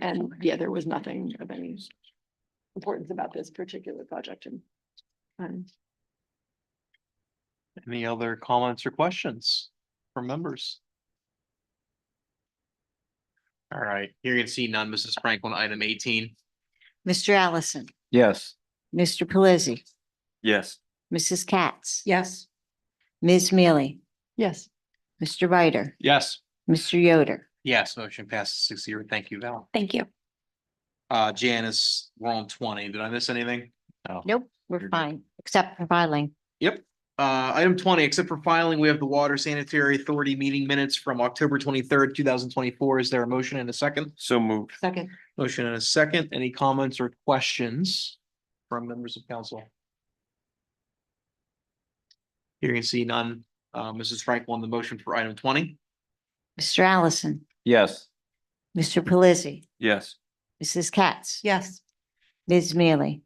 And yeah, there was nothing of any importance about this particular project and. um, Any other comments or questions from members? All right, hearing and seeing none, Mrs. Franklin, item eighteen. Mr. Allison, Yes. Mr. Pelisi, Yes. Mrs. Katz, yes. Ms. Mealy, Yes, Mr. Ryder, Yes. Mr. Yoder. Yes, motion passes six zero. Thank you, Val. Thank you. Uh, Janice, we're on twenty. Did I miss anything? Nope, we're You're good. fine, except for filing. Yep. Uh, item twenty, except for filing, we have the Water Sanitary Authority meeting minutes from October twenty-third, two thousand twenty-four. Is there a motion and a second? So moved. second, Motion and a second. Any comments or questions from members of council? Hearing and seeing none. Uh, Mrs. Frank on the motion for item twenty. Mr. Allison, Yes. Mr. Pelisi, Yes. Mrs. Katz, yes, Ms. Mealy,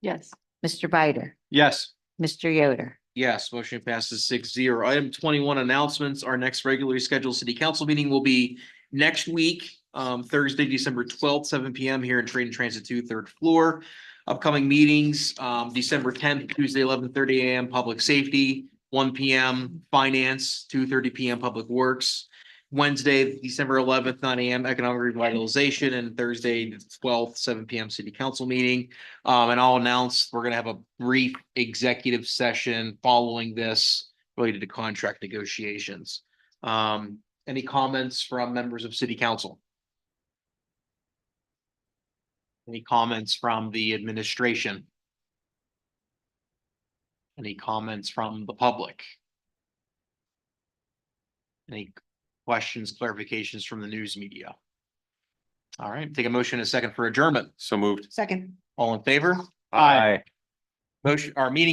yes, Mr. Ryder, Yes. Mr. Yoder. Yes, motion passes six zero. Item twenty-one announcements. Our next regularly scheduled city council meeting will be next week, um, Thursday, December twelfth, seven P M here in Trade and Transit two, third floor. Upcoming meetings, um, December tenth, Tuesday, eleven thirty A M, Public Safety, one P M, Finance, two thirty P M, Public Works. Wednesday, December eleventh, nine A M, Economic Revitalization, and Thursday, the twelfth, seven P M, City Council meeting. Um, and I'll announce, we're gonna have a brief executive session following this related to contract negotiations. Um, any comments from members of city council? Any comments from the administration? Any comments from the public? Any questions, clarifications from the news media? All right, take a motion and a second for adjournment. So moved. second. All in favor? Motion, our meeting